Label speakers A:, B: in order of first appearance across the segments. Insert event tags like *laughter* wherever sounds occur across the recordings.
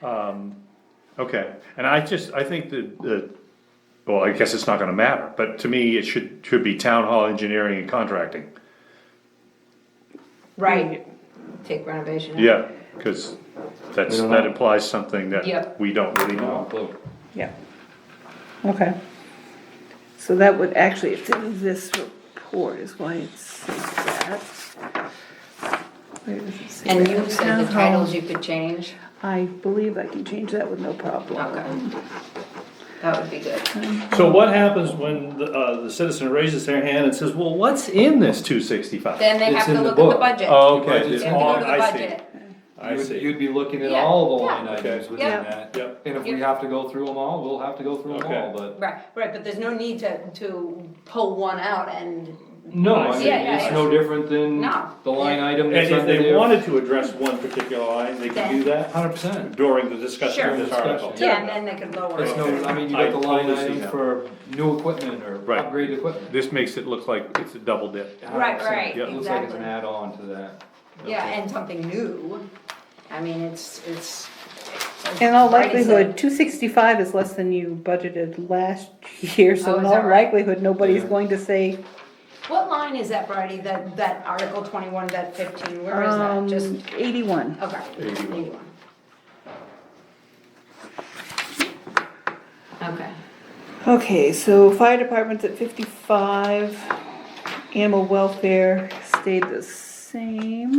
A: Um, okay, and I just, I think that, the well, I guess it's not gonna matter, but to me, it should, should be town hall engineering and contracting.
B: Right,
C: Take renovation. out.
A: Yeah, cause that's,
D: We don't
A: that
D: know.
A: implies something that
C: Yep.
A: we don't really know.
B: yeah. Okay. So that would, actually, it's in this report is why it says that. Where does it say
C: And
B: that?
C: you said the
B: Town hall.
C: titles you could change,
B: I believe I can change that with no problem.
C: okay. That would be good.
A: So what happens when the, uh, the citizen raises their hand and says, well, what's in this two sixty-five?
C: Then they
D: It's
C: have
D: in
C: to
D: the
C: look at the
D: book. Oh,
C: budget.
A: Oh, Okay,
D: Budget's
A: it's
C: They have to go
A: on,
C: to the
A: I see,
C: budget.
A: I
D: You'd,
A: see,
D: you'd be looking at
C: Yeah,
D: all the
C: yeah.
D: line items
A: Okay.
D: within
C: Yeah.
D: that.
A: Yep.
D: And if we
C: Yeah.
D: have to go through them all, we'll have to go through them
A: Okay.
D: all, but
C: Right, right, but there's no need to, to pull one out and,
D: no, I
A: Yeah,
D: mean,
C: yeah,
D: it's
C: yeah.
D: no different than
C: No.
D: the line item that's
A: And if
D: under
A: they
D: there.
A: wanted to address one particular line, they could do that
D: Hundred percent.
A: during the discussion of this
D: Sure.
A: article.
C: yeah, and then they could lower
D: It's no,
C: it.
D: I mean, you
A: I
D: got the line
A: totally see
D: item
A: that.
D: for new equipment or
A: Right.
D: upgraded equipment.
A: This makes it look like it's a double dip.
D: 100%.
C: Right, right,
D: It Looks like it's an
C: exactly.
D: add-on to that.
C: Yeah, and something new. I mean, it's, it's.
B: In all
C: Brady said-
B: likelihood, two sixty-five is less than you budgeted last *laughs* year,
C: Oh,
B: so in
C: is that
B: all
C: right?
B: likelihood, nobody's
D: Yeah.
B: going to say,
C: What line is that, Brady, that, that Article twenty-one, that fifteen, where is that?
B: um,
C: Just,
B: eighty-one.
C: okay.
A: 81.
C: 81. Okay.
B: Okay, so fire department's at fifty-five, animal welfare stayed the same.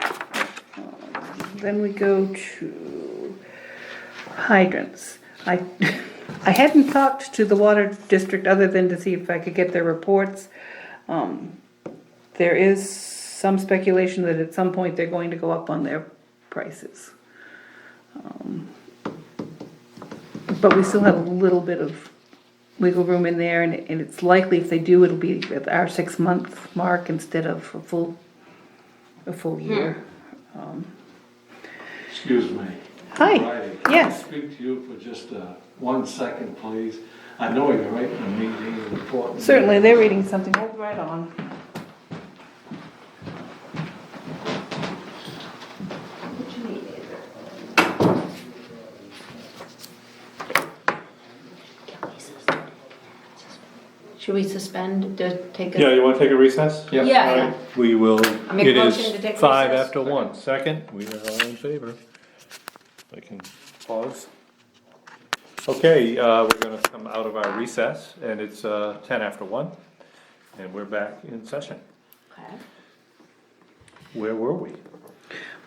B: Um, Then we go to hydrants. I, *laughs* I hadn't talked to the water district other than to see if I could get their reports. Um, There is some speculation that at some point they're going to go up on their prices. But we still have a little bit of wiggle room in there, and, and it's likely if they do, it'll be at our six-month mark instead of a full, a full year.
E: Excuse me.
B: Hi,
E: Friday,
B: yes.
E: Can I speak to you for just uh, one second, please? I know you're right in a meeting, important.
B: certainly, they're reading something, hold right on.
C: What you need? Should we suspend, to take a?
A: Yeah, you wanna take a recess?
D: Yep.
C: Yeah, yeah.
A: We will,
C: make a
A: it
C: motion to take
A: is five
C: recess.
A: after one. Second, we are all in favor. I can pause. Okay, uh, we're gonna come out of our recess, and it's, uh, ten after one, and we're back in session.
C: Okay.
A: Where were we?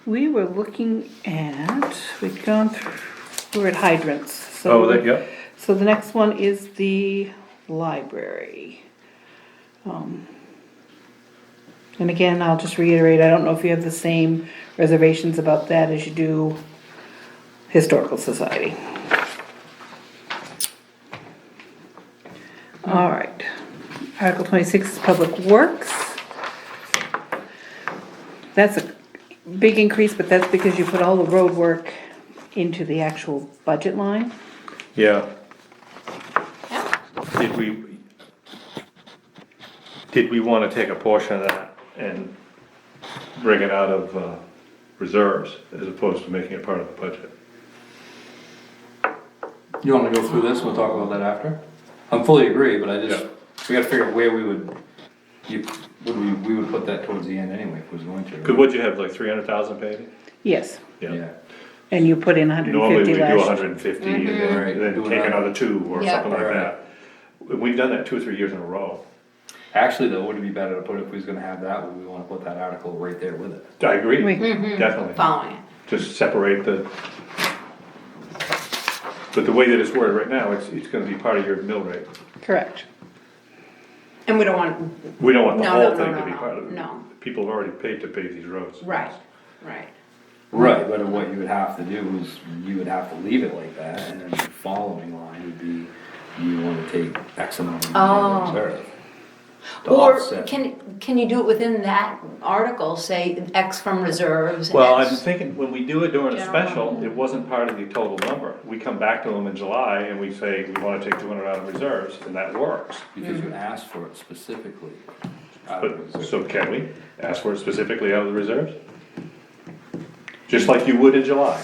B: We were looking at, we've gone through, we're at hydrants, so.
A: Oh, that, yep,
B: So the next one is the library. Um, And again, I'll just reiterate, I don't know if you have the same reservations about that as you do Historical Society. All right, Article twenty-six is Public Works. That's a big increase, but that's because you put all the road work into the actual budget line.
A: yeah.
C: Yeah.
A: Did we, did we wanna take a portion of that and bring it out of, uh, reserves as opposed to making it part of the budget?
D: You wanna go through this, we'll talk about that after? I'm fully agree, but I just,
A: Yeah.
D: we gotta figure out where we would, you, would we, we would put that towards the end anyway, if we was going to. right?
A: Cause what'd you have, like three hundred thousand paid?
B: Yes.
D: Yeah,
B: And you put in hundred and
A: Normally, we
B: fifty
A: do
B: last.
A: hundred and fifty, and
D: Right.
A: then, then
D: Do
A: take
D: another-
A: another two, or
C: Yeah.
A: something like
D: Right.
A: that. We've done that two or three years in a row.
D: actually though, would it be better to put, if we was gonna have that, would we wanna put that article right there with it?
A: I agree,
B: Right.
D: Mm-hmm.
A: definitely,
C: Following it.
A: just separate the. But the way that it's worded right now, it's, it's gonna be part of your mill rate.
B: Correct.
C: And we don't want,
A: We don't want the
C: No, no,
A: whole
C: no,
A: thing
C: no,
A: to be
C: no,
A: part of it.
C: no.
A: People have already paid to pave these roads.
C: right, right.
D: Right, but what you would have to do is, you would have to leave it like that, and then the following line would be, you wanna take X amount of money
C: Oh.
D: in reserve. to
C: Or
D: offset.
C: can, can you do it within that article, say X from reserves?
A: Well, I'm
C: X-
A: thinking, when we do it during a
C: General.
A: special, it wasn't part of the total number. We come back to them in July and we say, we wanna take two hundred out of reserves, and that works.
D: Because you asked for it specifically. out of
A: But,
D: reserve.
A: so can we ask for it specifically out of the reserves? Just like you would in July?